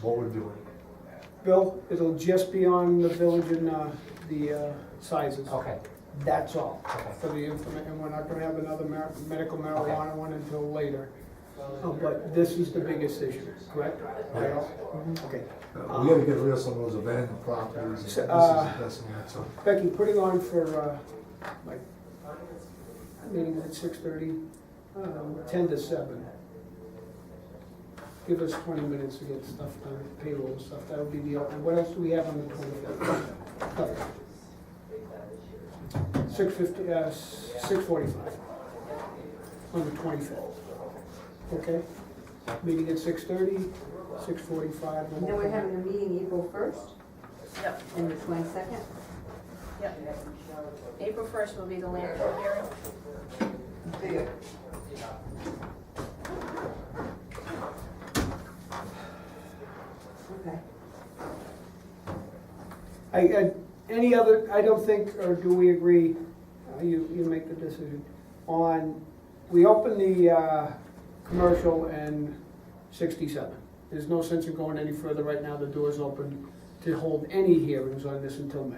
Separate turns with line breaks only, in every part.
what we're doing.
Bill, it'll just be on the village and, uh, the, uh, sizes.
Okay,
That's all,
Okay.
for the information, and we're not gonna have another mar- medical marijuana one until later. Uh, But this is the biggest issue, correct?
Yes.
Mhm. Okay.
Uh, We gotta get rid of some of those abandoned properties, and this is the
Uh,
best one, so.
Becky, put it on for, uh, like, meeting at six thirty, um, ten to seven. Give us twenty minutes to get stuff done, payroll and stuff, that'll be the, open. what else do we have on the twenty-fifth? Six fifty, uh, six forty-five, on the twenty-fifth, okay? Meeting at six thirty, six forty-five.
And then we're having a meeting April first
Yep,
and the twenty-second.
yep. April first will be the landfill hearing.
Okay.
I, I, any other, I don't think, or do we agree, uh, you, you make the decision, on, we open the, uh, commercial and sixty-seven. There's no sense in going any further right now, the door's open to hold any hearings on this until May.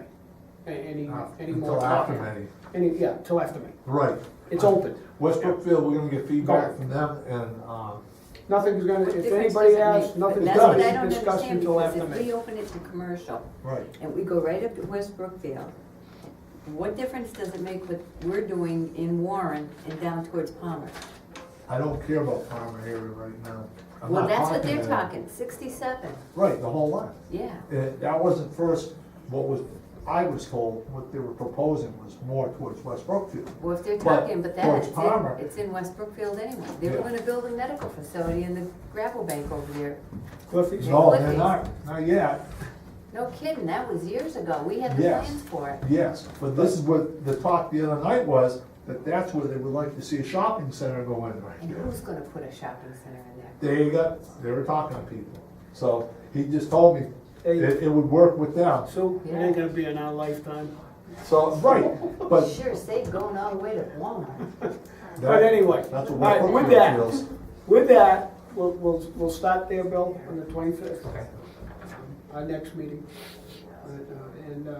A- Any,
uh,
any more.
Until after May, Uh-huh.
Any, yeah, till after May.
right.
It's open.
West Brookfield, we're gonna get feedback from them, and, um,
Nothing's gonna, if
Difference
anybody
doesn't
asks,
make-
nothing's
That's what I
gonna
don't
be discussed
understand,
until
because
after
if we
May.
open it to commercial
right.
and we go right up to West Brookfield, what difference does it make what we're doing in Warren and down towards Palmer?
I don't care about Palmer area right now. I'm
Well,
not
that's what they're
to them.
talking, sixty-seven,
Right, the whole lot.
yeah.
It- That wasn't first, what was, I was told, what they were proposing was more towards West Brookfield.
Well, if they're
But
talking, but that,
towards
it's
Palmer-
in, it's in West Brookfield anyway. They're
Yeah.
gonna build a medical facility in the gravel bank over there.
Cliffy's?
No,
Would
they're
be.
not, not yet,
No kidding, that was years ago. We had the
Yes.
plans for it.
yes, but this is what the talk the other night was, that that's where they would like to see a shopping center go in right
And
there.
who's gonna put a shopping center in there?
There you go, they were talking to people, so he just told me
Hey.
it, it would work with them,
Sue, it
Yeah.
ain't gonna be in our lifetime.
so, right, but
Sure, say going all the way to Walmart.
But
that,
anyway,
that's
all
what
right,
West
with
Brookfield
that,
feels.
With that, we'll, we'll, we'll stop there, Bill, on the twenty-fifth,
okay.
our next meeting. And, uh, And, uh,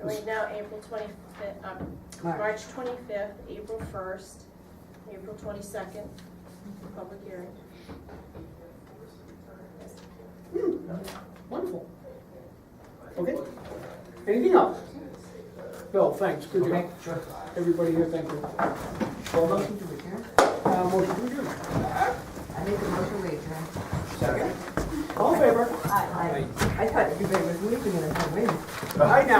So right now, April twenty-fifth, um,
March.
March twenty-fifth, April first, April twenty-second, public hearing.
wonderful. Okay, anything else? Bill, thanks, good
Okay,
job.
sure.
Everybody here, thank you.
Well, motion to adjourn?
Uh, motion to adjourn.
I make a motion to adjourn.
All in favor?
I, I, I thought everybody was leaving and I went.
Aye now.